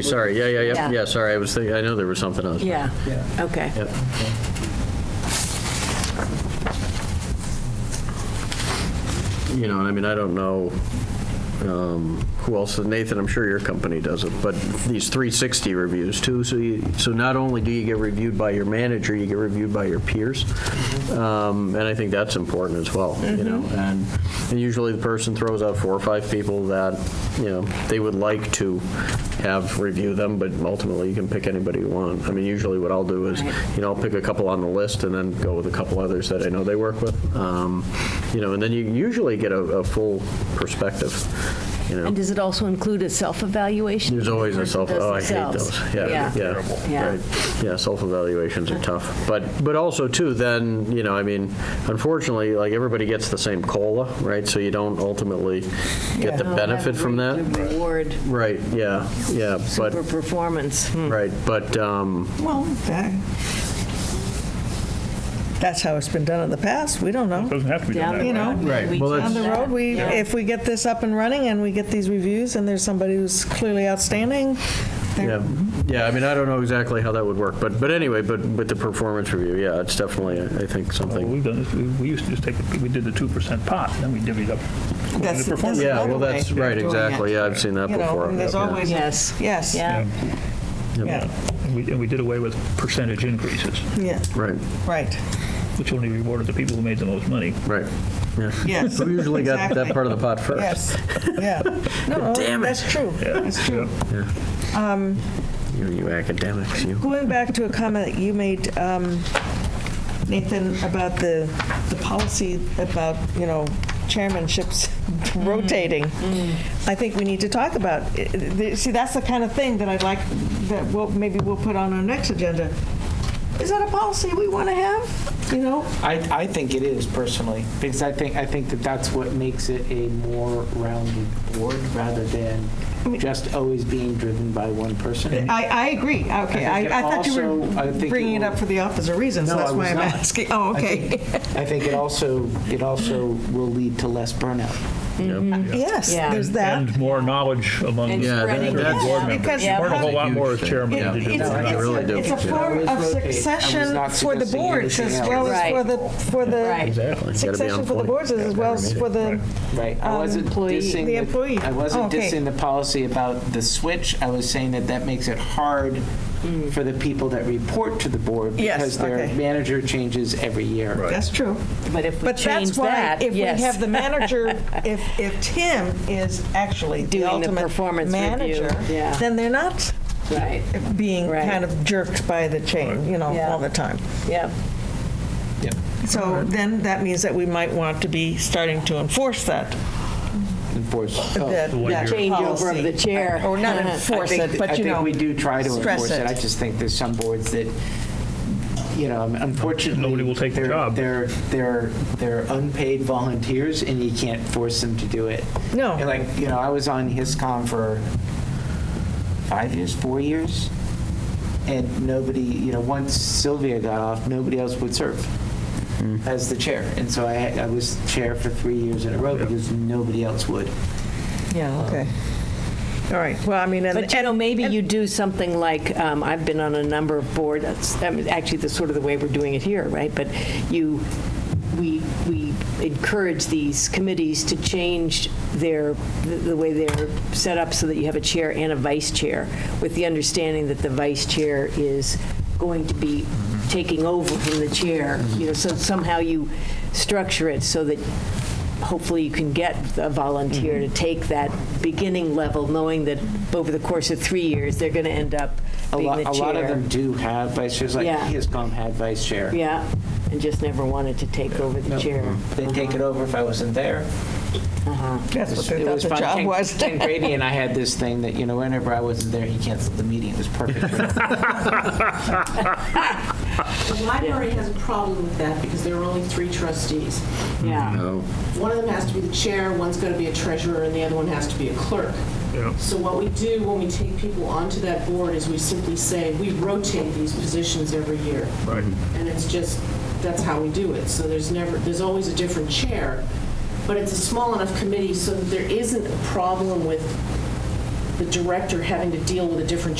Sorry, yeah, yeah, yeah, Yeah. yeah, sorry, I was thinking, I know there was something else. Yeah, okay. Yep. You know, and I mean, I don't know um, who else, Nathan, I'm sure your company does it, but these 360 reviews too, so you, so not only do you get reviewed by your manager, you get reviewed by your peers. Um, And I think that's important as well, you know? And and usually the person throws out four or five people that, you know, they would like to have review them, but ultimately you can pick anybody you want. I mean, usually what I'll do is, Right. you know, I'll pick a couple on the list and then go with a couple others that I know they work with. Um, You know, and then you usually get a, a full perspective, you know. And does it also include a self-evaluation? There's always a Person self, does oh, I hate themselves. those. Yeah, yeah, Yeah. right. Yeah, self-evaluations are tough. But, but also too, then, you know, I mean, unfortunately, like, everybody gets the same COLA, right? So you don't ultimately get the Oh, benefit from the that. Reward Right, yeah, yeah, but, for performance. Hmm. right, but, um, Well, that- that's how it's been done in the past. We don't know. Doesn't have to be Down done the You that know, way. road, Right, we well, do it's- On the that. road, we, Yeah. if we get this up and running and we get these reviews and there's somebody who's clearly outstanding, they're- Yeah, yeah, I mean, I don't know exactly how that would work, but, but anyway, but, but the performance review, yeah, it's definitely, I think, Well, Oh, something. We've done this, we- we used to just take, the- we did the 2% pot, then we divvied up. according to That's- that's- performance. Yeah, another well, that's way of right, doing exactly, it. yeah, I've seen that you know, before. and there's yeah. always, Yes. yes, yeah, Yeah, Yeah. And we- and we did away with percentage increases, yeah, Right, right, which only rewarded the people who made the most money. right, yeah. yes. We usually got that exactly. part of the pot first. Yes, yeah. No, Damn it. that's true. That's true. You- You academics, you. Going back to a comment that you made, um, Nathan, about the, the policy about, you know, chairmanships rotating, I think we need to talk about, i- i- the- see, that's the kind of thing that I'd like, that we'll, maybe we'll put on our next agenda. Is that a policy we want to have, you know? I, I think it is personally, because I think, I think that that's what makes it a more rounded board rather than just always being driven by one person. I, I agree, okay, I I, think it I thought you also- I think were it bringing it will- up for the opposite reason, so No, I that's was why I'm not. asking. Oh, I okay. think- I think it also, it also will lead to less burnout. Yes, Yeah. there's that. And more knowledge among And Yeah, spreading that- it that's- out. board members. because- You learn a whole Yeah. lot more as chairman Yeah. than you do. It's, No, I it's, really do. a, it's Yeah. a form I of was rotating. I was succession not for the suggesting boards as anything well as else. for the for the Right. Exactly. Gotta be succession on for the point. boards as well as for the Right. I wasn't employee. dissing. The employee. I Oh, wasn't okay. dissing the policy about the switch. I was saying that that makes it hard for the people that report to the board Mm. Yes, because their okay. manager changes every year. that's true. But if we But change that's why that, if yes. we have the manager, if if Tim is actually Doing the the ultimate performance manager, review, yeah. then they're not Right, being Right. kind of jerked by the chain, you know, Yeah. all the time. yeah. Yep. So then that means that we might want to be starting to enforce that Enforce. oh. that, one that year. Changeover of the chair. or not I enforce I it, think- but you know, I think we do try to stress enforce it. it. I just think there's some boards that, you know, unfortunately. Nobody will take the they're- job. They're, they're, they're unpaid volunteers and you can't force them to do it. No. And like, you know, I was on HISCOM for five years, four years, and nobody, you know, once Sylvia got off, nobody else would serve Hmm. as the chair. And so I, I was chair for three years in a row because nobody else would. yeah, okay. All right. Well, I mean, and, But, you know, maybe you do something like, um, I've been on a number of boards, that's- I mean, actually, that's sort of the way we're doing it here, right? But you, we, we encourage these committees to change their, the- the way they're set up so that you have a chair and a vice chair, with the understanding that the vice chair is going to be taking over from the chair, you know, so somehow you structure it so that hopefully you can get a volunteer Mm-hmm. to take that beginning level, knowing that over the course of three years, they're going to end up A being lot, the a chair. lot of them do have vice chairs, like Yeah. HISCOM had vice chair. Yeah, and just never wanted to take over the chair. They'd take it over if I wasn't there. that's what they It thought was the fun. job Ken- was. Ken Grady and I had this thing that, you know, whenever I wasn't there, he canceled the meeting. It was perfect. The library has a problem with that because there are only three trustees. Yeah, No. One of them has to be the chair, one's going to be a treasurer, and the other one has to be a clerk. Yeah. So what we do when we take people onto that board is we simply say, we rotate these positions every year. Right. And it's just, that's how we do it. So there's never, there's always a different chair, but it's a small enough committee so that there isn't a problem with the director having to deal with a different